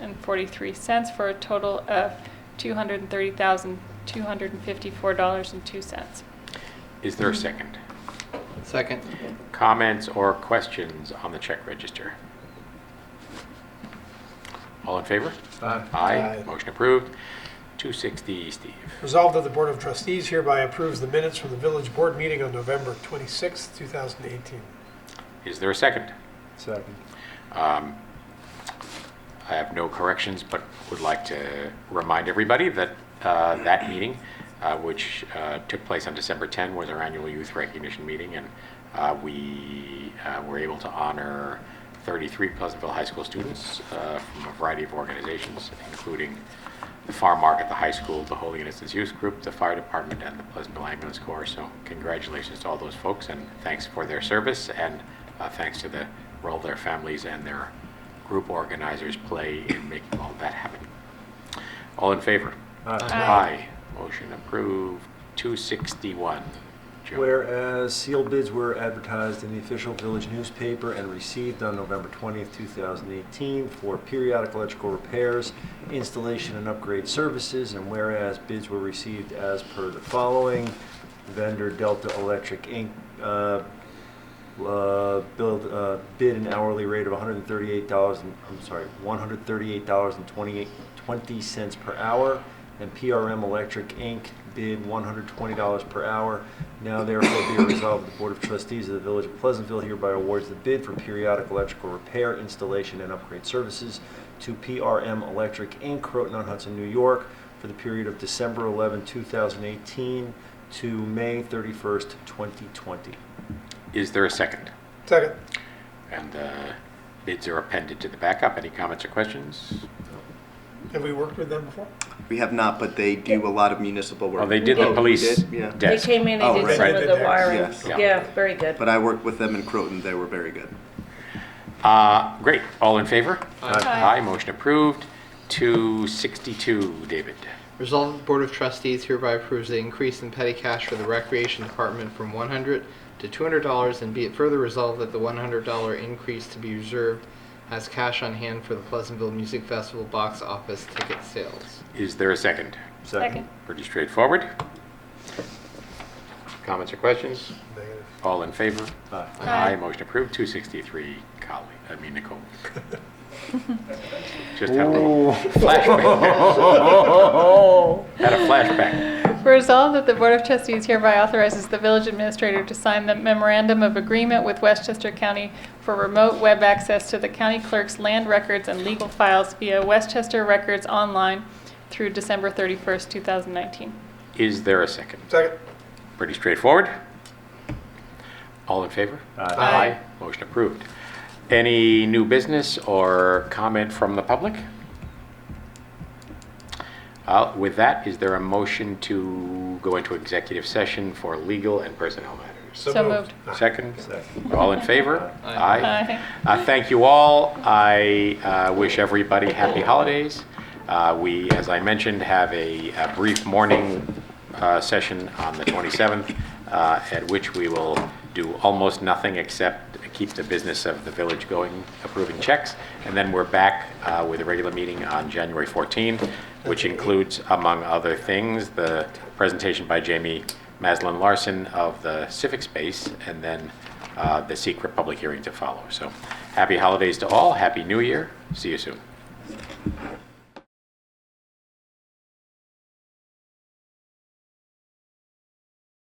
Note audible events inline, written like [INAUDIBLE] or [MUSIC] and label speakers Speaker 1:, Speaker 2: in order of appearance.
Speaker 1: forty-three cents for a total of two hundred and thirty thousand, two hundred and fifty-four dollars and two cents.
Speaker 2: Is there a second?
Speaker 3: Second.
Speaker 2: Comments or questions on the check register? All in favor?
Speaker 4: Aye.
Speaker 2: Motion approved. 260, Steve.
Speaker 4: Resolved that the Board of Trustees hereby approves the minutes from the village board meeting on November 26, 2018.
Speaker 2: Is there a second?
Speaker 5: Second.
Speaker 2: Um, I have no corrections, but would like to remind everybody that uh, that meeting, uh, which uh, took place on December 10, was our annual youth recognition meeting, and uh, we uh, were able to honor 33 Pleasantville High School students uh, from a variety of organizations, including the Farm Market, the high school, the Holy Innocents Youth Group, the fire department, and the Pleasantville Ambulance Corps. So congratulations to all those folks, and thanks for their service, and uh, thanks to the role their families and their group organizers play in making all that happen. All in favor?
Speaker 1: Aye.
Speaker 2: Motion approved. 261. Joe.
Speaker 5: Whereas sealed bids were advertised in the official village newspaper and received on November 20th, 2018 for periodic electrical repairs, installation and upgrade services, and whereas bids were received as per the following, vendor Delta Electric Inc., uh, uh, build, uh, bid an hourly rate of $138, and- I'm sorry, $138.20 per hour, and PRM Electric Inc. bid $120 per hour. Now therefore be it resolved, the Board of Trustees of the Village of Pleasantville hereby awards the bid for periodic electrical repair, installation, and upgrade services to PRM Electric Inc., Croton on Hudson, New York, for the period of December 11, 2018 to May 31st, 2020.
Speaker 2: Is there a second?
Speaker 4: Second.
Speaker 2: And uh, bids are appended to the backup. Any comments or questions?
Speaker 4: Have we worked with them before?
Speaker 6: We have not, but they do a lot of municipal work.
Speaker 2: Well, they did the
Speaker 6: Oh,
Speaker 2: police
Speaker 6: did? Yeah.
Speaker 7: They
Speaker 2: desk.
Speaker 7: came in,
Speaker 6: Oh,
Speaker 7: they did
Speaker 6: right.
Speaker 7: some
Speaker 4: Right,
Speaker 7: of the
Speaker 4: they-
Speaker 7: wiring.
Speaker 6: yes.
Speaker 7: Yeah, very good.
Speaker 6: But I worked with them in Croton. They were very good.
Speaker 2: Uh, Great. All in favor?
Speaker 1: Aye.
Speaker 2: Motion approved. 262, David.
Speaker 3: Resolved that the Board of Trustees hereby approves the increase in petty cash for the Recreation Department from 100 to $200, and be it further resolved that the $100 increase to be reserved as cash on hand for the Pleasantville Music Festival box office ticket sales.
Speaker 2: Is there a second?
Speaker 1: Second.
Speaker 2: Pretty straightforward. Comments or questions?
Speaker 1: [LAUGHS]
Speaker 4: Negative.
Speaker 2: All in favor?
Speaker 5: Aye.
Speaker 1: Aye.
Speaker 2: Motion approved. 263, Colleen, I mean Nicole. Just had a little flashback. Had a
Speaker 1: [LAUGHS]
Speaker 2: flashback.
Speaker 1: Resolved that the Board of Trustees hereby authorizes the village administrator to sign the memorandum of agreement with Westchester County for remote web access to the county clerk's land records and legal files via Westchester Records Online through December 31st, 2019.
Speaker 2: Is there a second?
Speaker 4: Second.
Speaker 2: Pretty straightforward. All in favor?
Speaker 1: Aye.
Speaker 2: Motion approved. Any new business or comment from the public? Uh, With that, is there a motion to go into executive session for legal and personnel matters?
Speaker 1: So moved.
Speaker 2: Second?
Speaker 5: Second.
Speaker 2: All in favor?
Speaker 3: Aye.
Speaker 1: Aye.
Speaker 2: Uh, Thank you all. I uh, wish everybody happy holidays. Uh, We, as I mentioned, have a a brief morning uh, session on the 27th, uh, at which we will do almost nothing except keep the business of the village going, approving checks, and then we're back uh, with a regular meeting on January 14th, which includes, among other things, the presentation by Jamie Maslin Larson of the Civic Space, and then uh, the secret public hearing to follow. So happy holidays to all, happy new year, see you soon.